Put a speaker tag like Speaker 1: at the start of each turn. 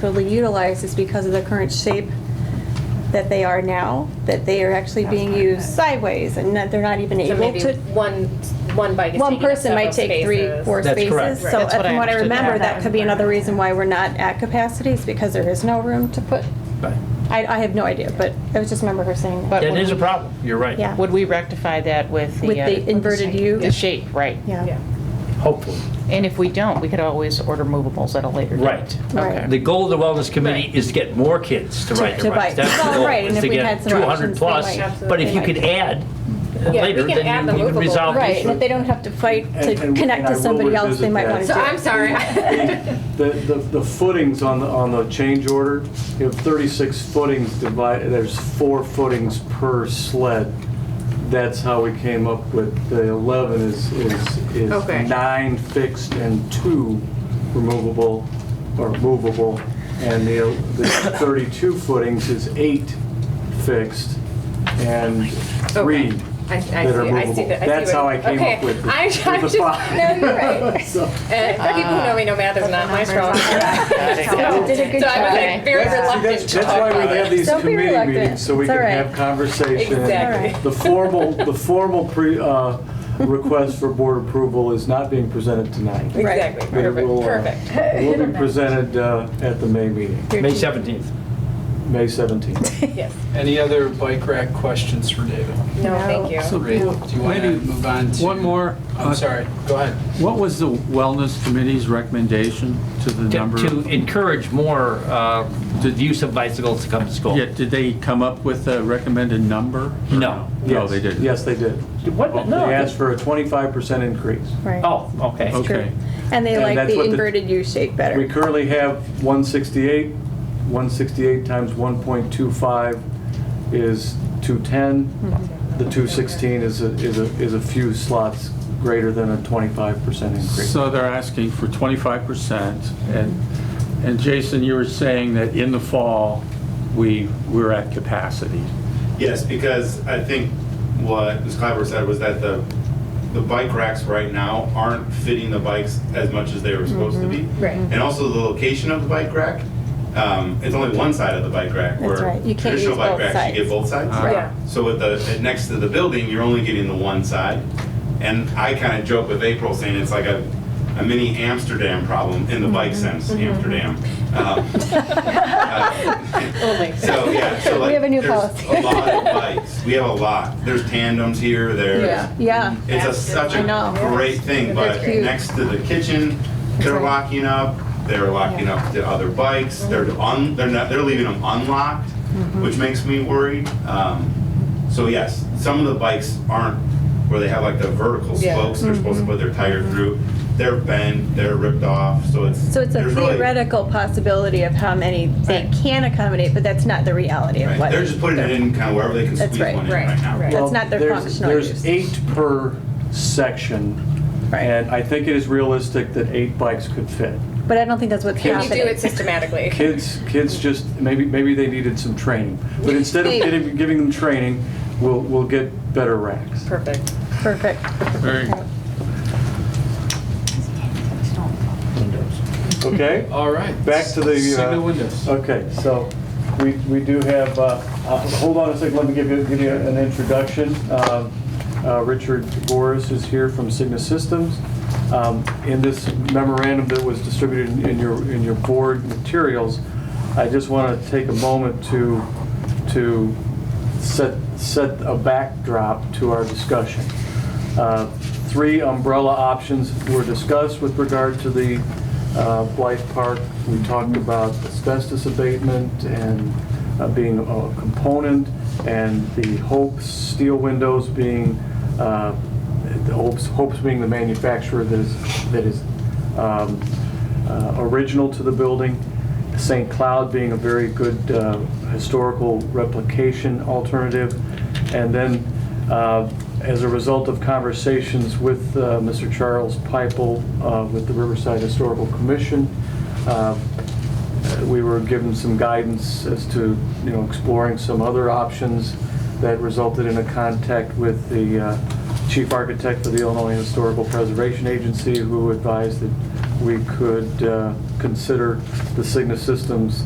Speaker 1: fully utilized is because of the current shape that they are now, that they are actually being used sideways and that they're not even
Speaker 2: So
Speaker 1: able
Speaker 2: maybe
Speaker 1: to.
Speaker 2: one, one bike is
Speaker 1: One
Speaker 2: taking up
Speaker 1: person might
Speaker 2: several
Speaker 1: take three,
Speaker 2: spaces.
Speaker 1: four
Speaker 3: That's
Speaker 1: spaces.
Speaker 3: correct.
Speaker 1: So
Speaker 4: That's what I
Speaker 1: from what I
Speaker 4: understood.
Speaker 1: remember,
Speaker 4: Yeah,
Speaker 1: that could be another reason why we're not at capacity is because there is no room to put,
Speaker 3: Right.
Speaker 1: I, I have no idea, but I just remember her saying that.
Speaker 4: But
Speaker 3: That
Speaker 4: would
Speaker 3: is a
Speaker 4: we-
Speaker 3: problem, you're right.
Speaker 1: Yeah.
Speaker 4: Would we rectify that with the?
Speaker 1: With
Speaker 4: uh,
Speaker 1: the inverted U?
Speaker 4: The shape, right.
Speaker 1: Yeah.
Speaker 2: Yeah.
Speaker 3: Hopefully.
Speaker 4: And if we don't, we could always order movables at a later date.
Speaker 3: Right.
Speaker 1: Right.
Speaker 3: The goal of the Wellness Committee
Speaker 4: Right.
Speaker 3: is to get more kids to
Speaker 1: To-
Speaker 3: ride
Speaker 1: to
Speaker 3: their bikes.
Speaker 1: bike.
Speaker 3: That's the
Speaker 1: Well,
Speaker 3: goal,
Speaker 1: right, and
Speaker 3: is
Speaker 1: if
Speaker 3: to
Speaker 1: we
Speaker 3: get
Speaker 1: had some
Speaker 3: 200
Speaker 1: options, they
Speaker 3: plus.
Speaker 1: might.
Speaker 3: But if you
Speaker 1: Absolutely.
Speaker 3: could add uh,
Speaker 2: Yeah, we
Speaker 3: later,
Speaker 2: can add
Speaker 3: then
Speaker 2: the
Speaker 3: you- you can
Speaker 2: movable.
Speaker 3: resolve
Speaker 1: Right,
Speaker 3: this.
Speaker 1: and if they don't have to fight to
Speaker 5: And- and-
Speaker 1: connect
Speaker 5: and I
Speaker 1: to
Speaker 5: will
Speaker 1: somebody else, they
Speaker 5: revisit
Speaker 1: might
Speaker 5: that.
Speaker 1: want to do
Speaker 2: So
Speaker 1: it.
Speaker 2: I'm sorry.
Speaker 5: The, the, the footings on the, on the change order, you have 36 footings divided, there's four footings per sled. That's how we came up with the 11 is, is,
Speaker 2: Okay.
Speaker 5: is nine fixed and two removable or movable. And the the 32 footings is eight fixed and three
Speaker 2: Okay. I- I
Speaker 5: that are
Speaker 2: see- I see
Speaker 5: movable.
Speaker 2: that- I see
Speaker 5: That's
Speaker 2: what-
Speaker 5: how I came
Speaker 2: okay.
Speaker 5: up with the
Speaker 2: I'm-
Speaker 5: with
Speaker 2: I'm
Speaker 5: the
Speaker 2: just-
Speaker 5: five.
Speaker 2: no, you're right.
Speaker 5: So-
Speaker 2: And for people who know me, no math is not my strong suit.
Speaker 1: You did a good
Speaker 2: So I was
Speaker 1: job.
Speaker 2: like very
Speaker 5: That's- see,
Speaker 2: reluctant
Speaker 5: that's-
Speaker 2: to
Speaker 5: That's
Speaker 2: talk
Speaker 5: why we
Speaker 2: about
Speaker 5: have
Speaker 2: it.
Speaker 5: these
Speaker 1: Don't be
Speaker 5: committee
Speaker 1: reluctant.
Speaker 5: meetings, so we
Speaker 1: It's
Speaker 5: can
Speaker 1: all right.
Speaker 5: have conversation.
Speaker 2: Exactly.
Speaker 5: The formal, the formal pre, uh, request for board approval is not being presented tonight. It
Speaker 2: Exactly,
Speaker 5: will,
Speaker 2: perfect,
Speaker 5: uh,
Speaker 2: perfect.
Speaker 5: Will be presented uh, at the May meeting,
Speaker 3: May 17th.
Speaker 5: May 17th.
Speaker 2: Yes.
Speaker 6: Any other bike rack questions for David?
Speaker 2: No, thank you.
Speaker 7: So
Speaker 6: Great. Do you want to
Speaker 7: maybe
Speaker 6: move on to?
Speaker 7: one more. uh,
Speaker 6: I'm sorry, go ahead.
Speaker 7: What was the Wellness Committee's recommendation to the
Speaker 3: To-
Speaker 7: number?
Speaker 3: To encourage more uh, the use of bicycles to come to school.
Speaker 7: Yeah, did they come up with a recommended number? or
Speaker 3: No.
Speaker 7: No,
Speaker 5: Yes.
Speaker 7: they didn't?
Speaker 5: Yes, they did.
Speaker 3: What?
Speaker 5: They
Speaker 3: No.
Speaker 5: asked for a 25% increase.
Speaker 1: Right.
Speaker 3: Oh, okay.
Speaker 7: Okay.
Speaker 1: True. And they
Speaker 5: And
Speaker 1: like
Speaker 5: that's
Speaker 1: the
Speaker 5: what the-
Speaker 1: inverted U shape better.
Speaker 5: We currently have 168. 168 times 1.25 is 210. The 216 is a, is a, is a few slots greater than a 25% increase.
Speaker 7: So they're asking for 25%, and, and Jason, you were saying that in the fall, we, we're at capacity.
Speaker 8: Yes, because I think what Ms. Clyber said was that the, the bike racks right now aren't fitting the bikes as much as they were supposed to be.
Speaker 1: Mm-hmm.
Speaker 2: Right.
Speaker 8: And also the location of the bike rack, um, it's only one side of the bike rack.
Speaker 1: That's
Speaker 8: where
Speaker 1: right. You can't
Speaker 8: Traditional
Speaker 1: use
Speaker 8: bike
Speaker 1: both
Speaker 8: racks, you
Speaker 1: sides.
Speaker 8: get both sides.
Speaker 2: Right. Yeah.
Speaker 8: So with the, at- next to the building, you're only getting the one side. And I kind of joke with April saying it's like a, a mini Amsterdam problem in the bike
Speaker 1: Mm-hmm.
Speaker 8: sense, Amsterdam. Um, uh,
Speaker 2: Oh my
Speaker 8: so yeah, so like
Speaker 1: We have a new
Speaker 8: there's
Speaker 1: policy.
Speaker 8: a lot of bikes. We have a lot. There's tandems here. There's
Speaker 1: Yeah,
Speaker 8: it's a, such a
Speaker 1: I know.
Speaker 8: great thing.
Speaker 1: That's
Speaker 8: But
Speaker 1: huge.
Speaker 8: next to the kitchen, they're locking up. They're locking up the other bikes.
Speaker 1: Mm-hmm.
Speaker 8: They're un, they're not they're leaving them unlocked, which makes me worried. Um, so yes, some of the bikes aren't where they have like the vertical
Speaker 2: Yeah.
Speaker 8: spokes. They're supposed
Speaker 1: Mm-hmm.
Speaker 8: to put their tire through. They're bent. They're ripped off. So it's
Speaker 1: So it's a
Speaker 8: there's really-
Speaker 1: theoretical possibility of how many they can accommodate, but that's not the reality of
Speaker 8: Right.
Speaker 1: what.
Speaker 8: They're just putting it in kind of wherever they can
Speaker 1: That's
Speaker 8: squeeze
Speaker 1: right.
Speaker 8: one in
Speaker 2: Right,
Speaker 8: right now.
Speaker 2: right.
Speaker 1: That's not their
Speaker 5: Well, there's-
Speaker 1: functional use.
Speaker 5: There's eight per section,
Speaker 1: Right.
Speaker 5: and I think it is realistic that eight bikes could fit.
Speaker 1: But I don't think that's what's
Speaker 2: Can you do
Speaker 1: happening.
Speaker 2: it systematically?
Speaker 5: Kids, kids just, maybe, maybe they needed some training. But instead of getting- giving them training, we'll, we'll get better racks.
Speaker 2: Perfect.
Speaker 1: Perfect.
Speaker 7: Very,
Speaker 5: Okay?
Speaker 6: All right.
Speaker 5: Back to the. uh,
Speaker 6: Single windows.
Speaker 5: Okay, so we, we do have, uh, uh, hold on a second, let me give you, give you an introduction. Um, uh, Richard Boris is here from Cigna Systems. Um, In this memorandum that was distributed in your, in your board materials, I just want to take a moment to, to set, set a backdrop to our discussion. Uh, Three umbrella options were discussed with regard to the uh, Blythe Park. We talked about asbestos abatement and uh, being a component, and the Hope's steel windows being, uh, the Hope's Hope's being the manufacturer that is, that is um, uh, original to the building. St. Cloud being a very good uh, historical replication alternative. And then, uh, as a result of conversations with uh, Mr. Charles Pipel uh, with the Riverside Historical Commission, uh, we were given some guidance as to, you know, exploring some other options that resulted in a contact with the uh, chief architect for the Illinois Historical Preservation Agency, who advised that we could uh, consider the Cigna Systems